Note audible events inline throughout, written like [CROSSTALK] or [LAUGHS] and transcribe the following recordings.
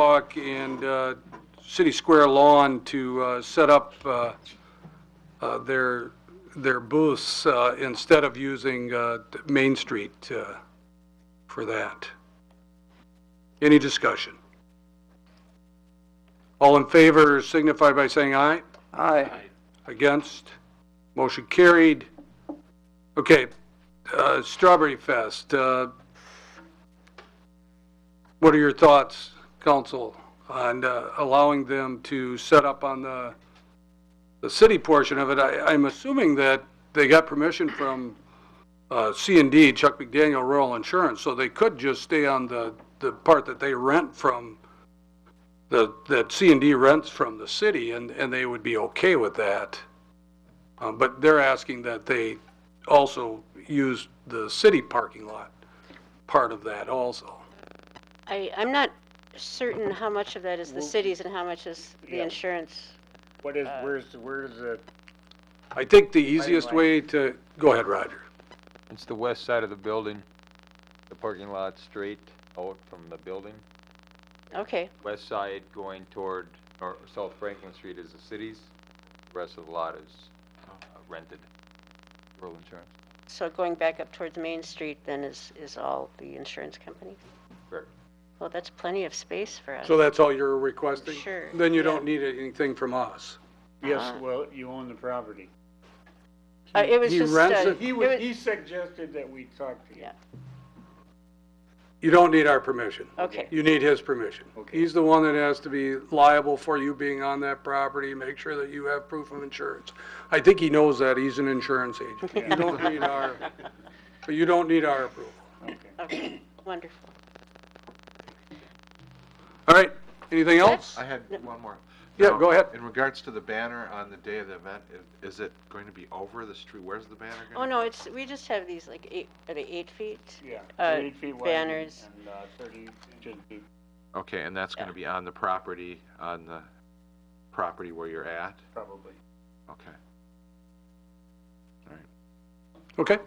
Park and uh, City Square lawn to uh, set up uh, uh, their, their booths uh, instead of using uh, Main Street uh, for that. Any discussion? All in favor signify by saying aye. Aye. Against? Motion carried. Okay, uh, Strawberry Fest, uh, what are your thoughts, council, on uh, allowing them to set up on the, the city portion of it? I, I'm assuming that they got permission from uh, C&D, Chuck McDaniel Rural Insurance, so they could just stay on the, the part that they rent from, the, that C&D rents from the city, and, and they would be okay with that. Uh, But they're asking that they also use the city parking lot, part of that also. I, I'm not certain how much of that is the cities and how much is the Yeah. insurance. What is, Uh, uh-huh. where's, where's the, I think the easiest way to, go ahead, Roger. It's the west side of the building, the parking lot straight out from the building. Okay, West side going toward, or South Franklin Street is the city's, The rest of the lot is uh, rented, rural insurance. so going back up towards Main Street then is, is all the insurance company? Correct. Well, that's plenty of space for us. So that's all you're requesting? Sure, Then you yeah. don't need anything from us. yes, Uh-huh. well, you own the property. Uh, it was he just, rents uh, it? He it was, was- he suggested that we talk to you. Yeah. You don't need our permission. okay, You need his permission. Okay. He's the one that has to be liable for you being on that property, make sure that you have proof of insurance. I think he knows that, he's an insurance agent. You don't need our, but you don't need our approval. Okay. [COUGHS] okay, wonderful. All right, anything else? I had No. one more. Yeah, Now, go ahead. In regards to the banner on the day of the event, i- is it going to be over the street? Where's the banner Oh, going? no, it's, we just have these like eight, are they eight feet? Yeah, Uh, eight feet wide and, banners. and, uh, thirty inches deep. Okay, and that's going Yeah. to be on the property, on the property where you're at? probably. Okay. Okay,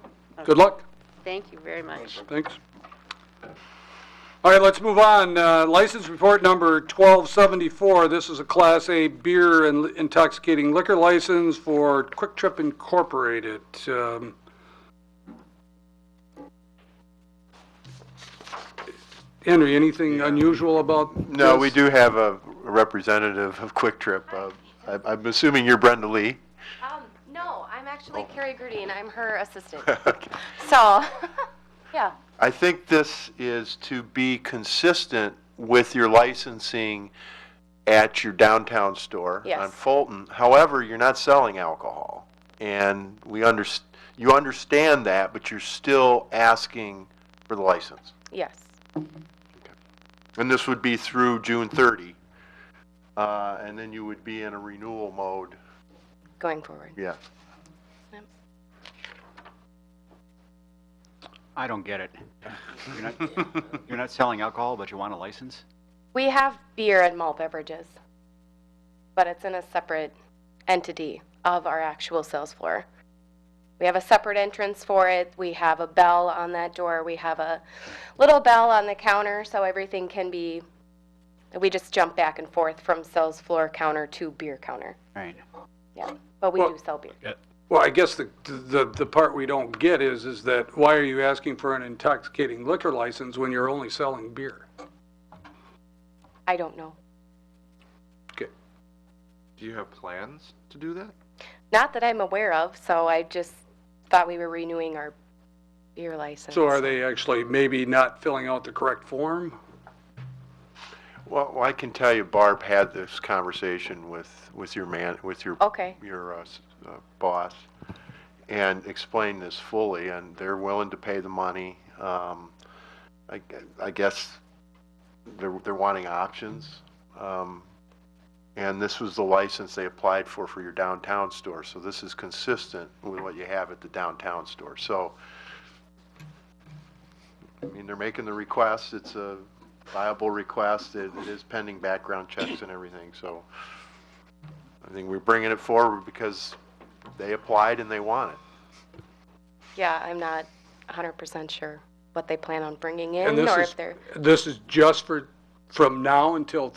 good luck, Thank you very much. thanks. All right, let's move on. Uh, License report number 1274, this is a Class A beer and intoxicating liquor license for Quick Trip Incorporated. Um, Henry, anything unusual about this? No, we do have a representative of Quick Trip. Uh, I- I'm assuming you're Brenda Lee. Um, no, I'm actually Carrie Grudine. I'm her assistant. Okay. So, [LAUGHS] yeah, I think this is to be consistent with your licensing at your downtown store on Yes. Fulton. However, you're not selling alcohol. And we under, you understand that, but you're still asking for the license. yes. And this would be through June 30. Uh, And then you would be in a renewal mode, Going forward. yeah. I don't get it. You're not, you're not selling alcohol, but you want a license? We have beer and malt beverages, but it's in a separate entity of our actual sales floor. We have a separate entrance for it. We have a bell on that door. We have a little bell on the counter, so everything can be, we just jump back and forth from sales floor counter to beer counter. Right. Yeah, but we Well- do sell beer. Well, I guess the, the, the part we don't get is, is that why are you asking for an intoxicating liquor license when you're only selling beer? I don't know. Okay. Do you have plans to do that? Not that I'm aware of, so I just thought we were renewing our beer license. So are they actually maybe not filling out the correct form? Well, I can tell you Barb had this conversation with, with your man, with your, Okay, your uh, s- uh, boss and explained this fully and they're willing to pay the money. Um, I, gue- I guess they're, they're wanting options. Um, and this was the license they applied for, for your downtown store. So this is consistent with what you have at the downtown store. So, I mean, they're making the request. It's a viable request. It it is pending background checks and everything, so I think we're bringing it forward because they applied and they want it. yeah, I'm not 100% sure what they plan on bringing And in this or is- if they're, This is just for, from now until